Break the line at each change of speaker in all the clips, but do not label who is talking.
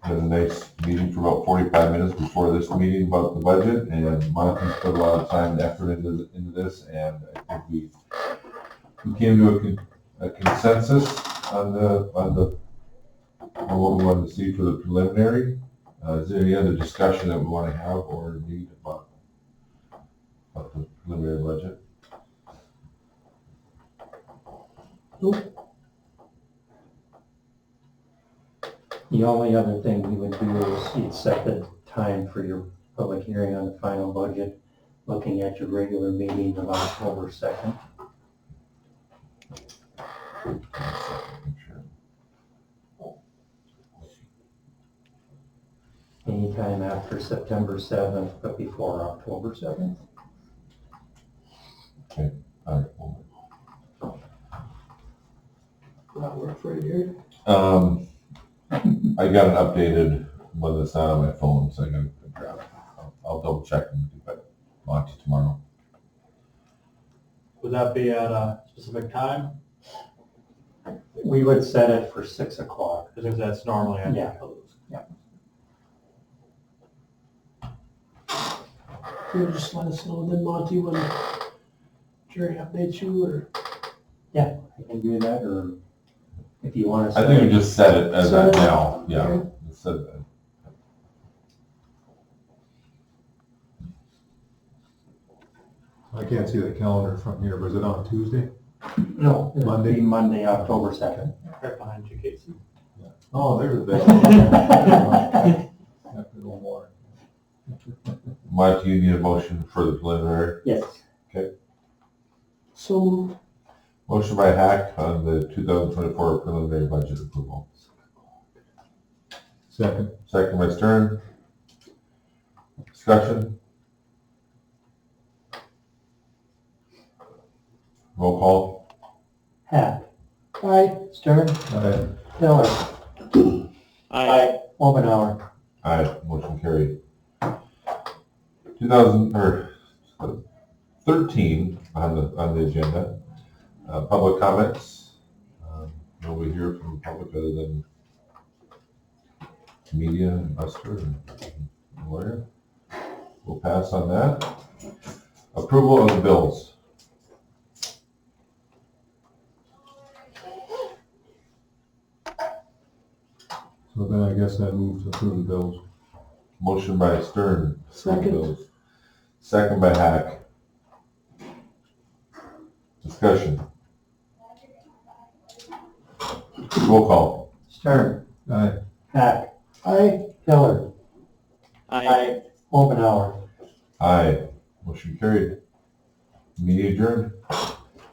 had a nice meeting for about forty-five minutes before this meeting about the budget, and Monty put a lot of time and effort into, into this, and I think we, we came to a con- a consensus on the, on the, on what we wanted to see for the preliminary. Uh, is there any other discussion that we want to have or need about, about the preliminary budget?
The only other thing we would do is you'd set the time for your public hearing on the final budget, looking at your regular meeting of October second. Anytime after September seventh, but before October seventh.
All right, well,
That work for you?
Um, I got an updated one that's not on my phone, so I gotta grab it. I'll- I'll double check and get back on to tomorrow.
Would that be at a specific time?
We would set it for six o'clock.
Because that's normally at.
Yeah.
You'll just let us know then, Monty, when Jerry updates you or
You can do that, or if you want to
I
set
think we
it,
just set it as
Set
that
it?
now, yeah.
Okay.
Let's set that.
I can't see the calendar from here, but is it on Tuesday?
no, it would
Monday.
be Monday, October second.
Right behind you, Casey.
Oh, there's a day. After the war.
Mike, do you need a motion for the preliminary?
Yes.
so,
Motion by Hack on the two thousand twenty-four preliminary budget approval.
Second,
Second by Stern. Discussion? Roll call?
Hack,
aye,
Stern,
I
Miller. Aye. Omenauer.
Aye, motion carried. Two thousand, or thirteen on the, on the agenda, uh, public comments. Um, Nobody here from the public other than media and Buster and lawyer. We'll pass on that. Approval of the bills.
So then I guess I move to approve the bills.
Motion by Stern. approve the
Second.
bills. Second by Hack. Discussion. Roll call.
Stern,
Aye.
Hack,
aye,
Hiller. Aye. Omenauer.
Aye. Motion carried. Meeting adjourned.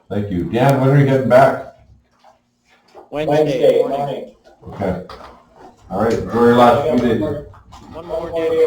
Thank you. Dan, when are you heading back?
Wednesday morning.
Okay. All right, enjoy your last few days.
One more day.